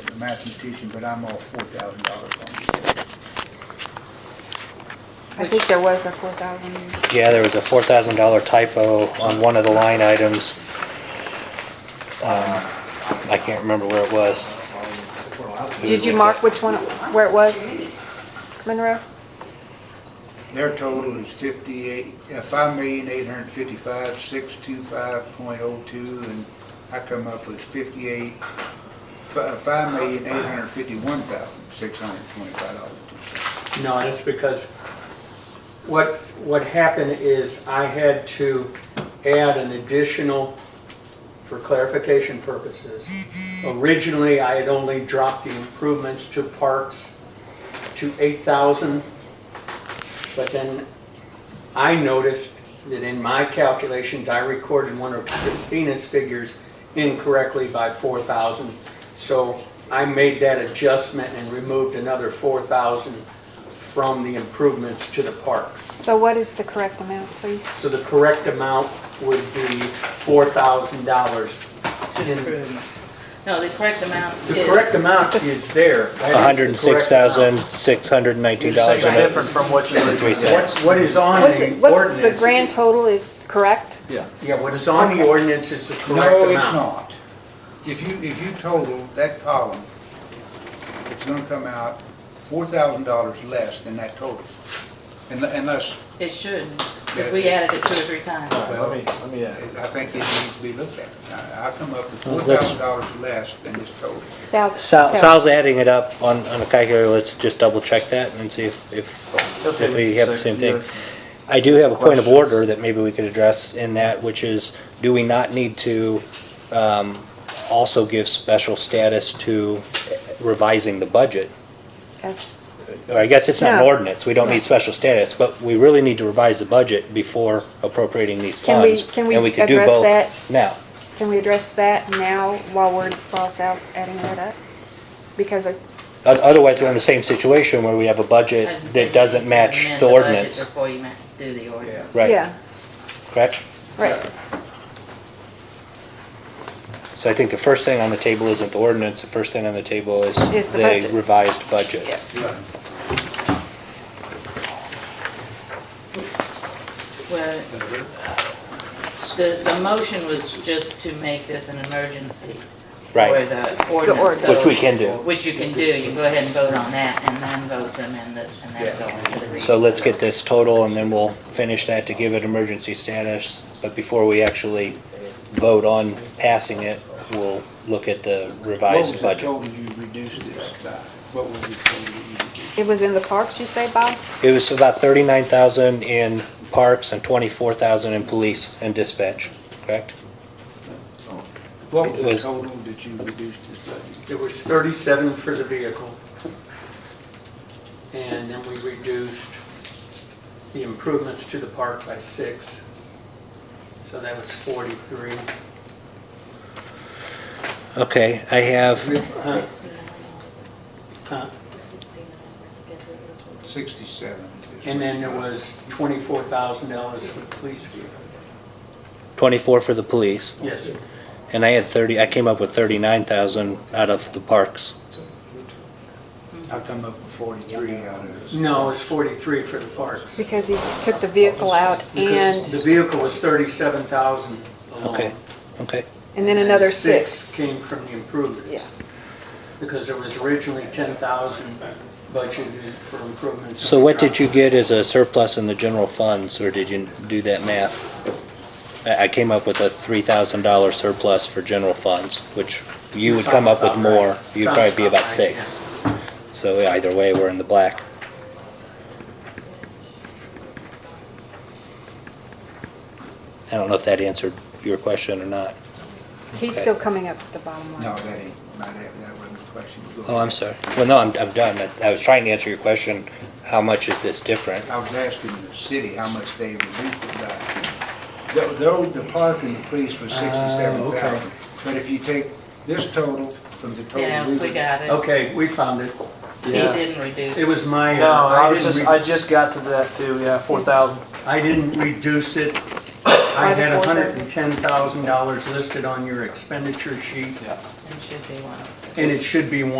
a mathematician, but I'm all four thousand dollars I think there was a four thousand. Yeah, there was a four thousand dollar typo on one of the line items. Um, I can't remember where it was. Did you mark which one, where it was, Monroe? on. Their total is fifty-eight, uh, five million, eight hundred fifty-five, six two five point oh two, and I come up with fifty-eight, five million, eight hundred fifty-one thousand, six hundred twenty-five dollars. No, that's because what, what happened is I had to add an additional, for clarification purposes. Originally, I had only dropped the improvements to parks to 8,000. But then I noticed that in my calculations, I recorded one of Christina's figures incorrectly by 4,000. So I made that adjustment and removed another 4,000 from the improvements to the parks. So what is the correct amount, please? So the correct amount would be $4,000. in- No, the correct amount The is- correct amount is there. That is the correct hundred and six thousand, six hundred and nineteen dollars It's and different from what you were. three amount. cents. What- What is on What's, it- the what's the ordinance, grand total is correct? Yeah. yeah, what is on the ordinance is the correct No, amount. it's not. If you, if you total that column, it's gonna come out four thousand dollars less than that total. Un- Unless, It should, because we added it two or three times. Let me, let me, uh, I think it needs to be looked at. I, I come up with four Well, let's- thousand dollars less than this total. Sal, Sal, Sal- Sal's adding it up on, on a calculator, let's just double check that and see if, if, okay, if we have the so same thing. you're- I do have a point of Questions? order that maybe we could address in that, which is, do we not need to um, also give special status to revising the budget? yes. Or I guess it's not an No. ordinance, we don't need special status, but we really need to revise the budget before appropriating these Can we- funds. can we and could do address both that? Now, Can we address that now while we're, while Sal's adding that up? Because of, O- otherwise we're in the same situation where we have a budget I was gonna say, that doesn't match amend the budget ordinance, Before you ma- do the ordinance. right, yeah, correct? right. So I think the first thing on the table isn't the ordinance, the first thing on the table is Is the the budget. revised budget. Yeah. Well, the, the motion was just to make this an emergency. For Right, the ordinance. ordinance. which we so- can do. Which you can do, you go ahead and vote on that, and then vote them in the, and then go into the. So let's get this total and then we'll finish that to give it emergency status. But before we actually vote on passing it, we'll look at the revised budget. What was the total you reduced this by? What was the total you reduced? It was in the parks, you say, Bob? It was about thirty-nine thousand in parks and twenty-four thousand in police and dispatch, correct? Oh. What was It was- the total that you reduced this by? It was 37 for the vehicle. And then we reduced the improvements to the park by six. So that was 43. Okay, I have, Huh? Huh? Sixty-seven. is And then what there it's was $24,000 for the police vehicle. twenty-four for the police, Yes, and I had thirty, I came up with thirty-nine thousand out of the parks. got. I come up with forty-three out of this. no, it was 43 for the parks. Because he took the vehicle out Because and, the vehicle was 37,000 alone. Okay, okay, and then another Six six. came from the improvements. Yeah. Because there was originally ten thousand budgeted for improvements. so what did you get as a surplus in the general funds, or did you do that math? I, I came up with a three thousand dollar surplus for general funds, which you would come up with Sounds about right. more, you'd probably be about Sounds about right, six. So either way, we're in the black. I don't know if that answered your question or not. He's Okay. still coming up with the bottom line. No, that ain't, not, that that wasn't the question. Go Oh, I'm ahead. sorry. Well, no, I'm, I'm done. I- I was trying to answer your question, how much is this different? I was asking the city how much they reduced it by. The, the, the park and the police was sixty-seven okay. thousand, but if you take this total from the total. Yeah, we we've- got it. Okay, we found it. He didn't reduce. It was my. uh, No, I was didn't just, re- I just got to that too, yeah, four thousand. I didn't reduce it. I the had four hundred thousand. and ten thousand dollars listed on your expenditure sheet, It should be one oh six. and it should be one